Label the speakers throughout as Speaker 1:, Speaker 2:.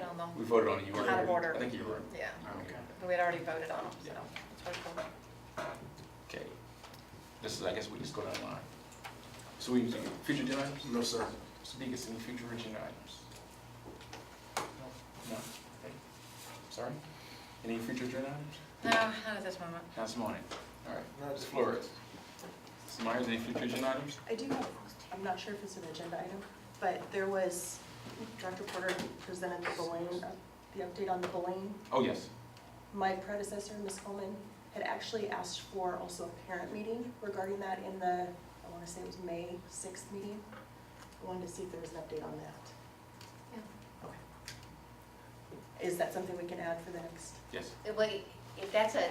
Speaker 1: them.
Speaker 2: We voted on it, you were.
Speaker 1: Out of order.
Speaker 2: I think you were.
Speaker 1: Yeah,
Speaker 2: Okay.
Speaker 1: we had already voted on them, so
Speaker 2: Yeah.
Speaker 1: it's pretty cool.
Speaker 2: Okay. This is, I guess we just go down the line. So we, future agenda items?
Speaker 3: No, sir.
Speaker 2: Mr. Deacon, any future agenda items? No? Okay. Sorry? Any future agenda items?
Speaker 1: No, not at this moment.
Speaker 2: That's morning. All right.
Speaker 3: Not
Speaker 2: Ms. Flores? Ms. Myers, any future agenda items?
Speaker 4: I do have, I'm not sure if it's an agenda item, but there was, Dr. Porter presented the Blaine, uh, the update on the Blaine.
Speaker 2: Oh, yes.
Speaker 4: My predecessor, Ms. Coleman, had actually asked for also a parent meeting regarding that in the, I want to say it was May 6th meeting. I wanted to see if there was an update on that.
Speaker 5: Yeah.
Speaker 4: Okay. Is that something we can add for the next?
Speaker 2: Yes.
Speaker 5: Uh, Wait, if that's a,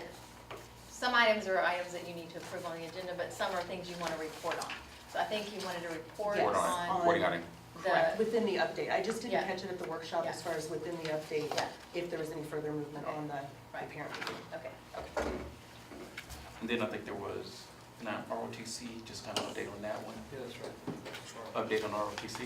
Speaker 5: some items are items that you need to approve on the agenda, but some are things you want to report on. So I think you wanted to report
Speaker 4: Yes.
Speaker 2: Report on it.
Speaker 5: on
Speaker 2: Reporting on it.
Speaker 5: the,
Speaker 4: Within the update. I just didn't
Speaker 5: Yeah.
Speaker 4: catch it at the workshop as
Speaker 5: Yeah.
Speaker 4: far as within the update,
Speaker 5: Yeah.
Speaker 4: if there was any further movement on the the
Speaker 5: Right.
Speaker 4: parent meeting.
Speaker 5: okay.
Speaker 2: And then I think there was, now ROTC, just kind of update on that one.
Speaker 3: Yeah, that's right.
Speaker 2: Update on ROTC?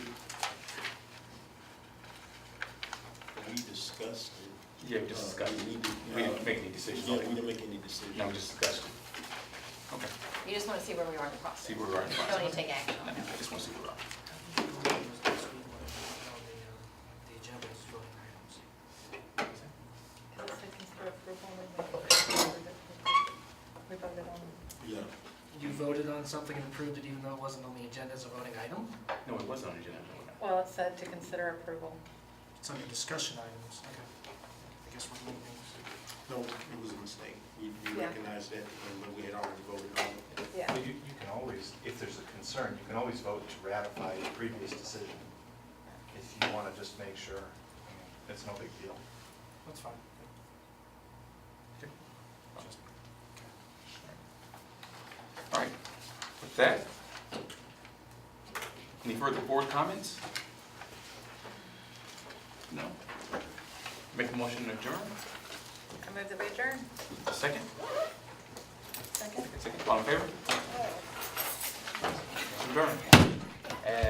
Speaker 6: We discussed it.
Speaker 2: Yeah, we just discussed.
Speaker 6: Uh, we
Speaker 2: it.
Speaker 6: need to-
Speaker 2: We didn't make any
Speaker 6: Yeah, we
Speaker 2: decisions.
Speaker 6: didn't make any decisions.
Speaker 2: No, we just discussed it. Okay.
Speaker 5: You just want to see where we are in the process.
Speaker 2: See where we are in the
Speaker 5: You
Speaker 2: process.
Speaker 5: Don't need to take action
Speaker 2: No,
Speaker 5: on it.
Speaker 2: I just want to see where we are.
Speaker 7: The agenda is voting items.
Speaker 1: We voted on
Speaker 6: Yeah,
Speaker 7: You voted on something and approved it even though it wasn't on the agenda as a voting item?
Speaker 2: No, it wasn't on the agenda.
Speaker 1: Well, it said to consider approval.
Speaker 7: It's under discussion items, okay. I guess we're moving things.
Speaker 6: no, it was a mistake. We we
Speaker 1: Yeah.
Speaker 6: recognized that, and we had already voted on it.
Speaker 1: Yeah.
Speaker 8: Well, you, you can always, if there's a concern, you can always vote to ratify the previous decision if you want to just make sure. I mean, It's no big deal.
Speaker 7: That's fine.
Speaker 2: All right, with that, any further board comments? No? Make a motion to adjourn,
Speaker 1: I move that we adjourn.
Speaker 2: second,
Speaker 4: Second?
Speaker 2: second, all in favor? Adjourn.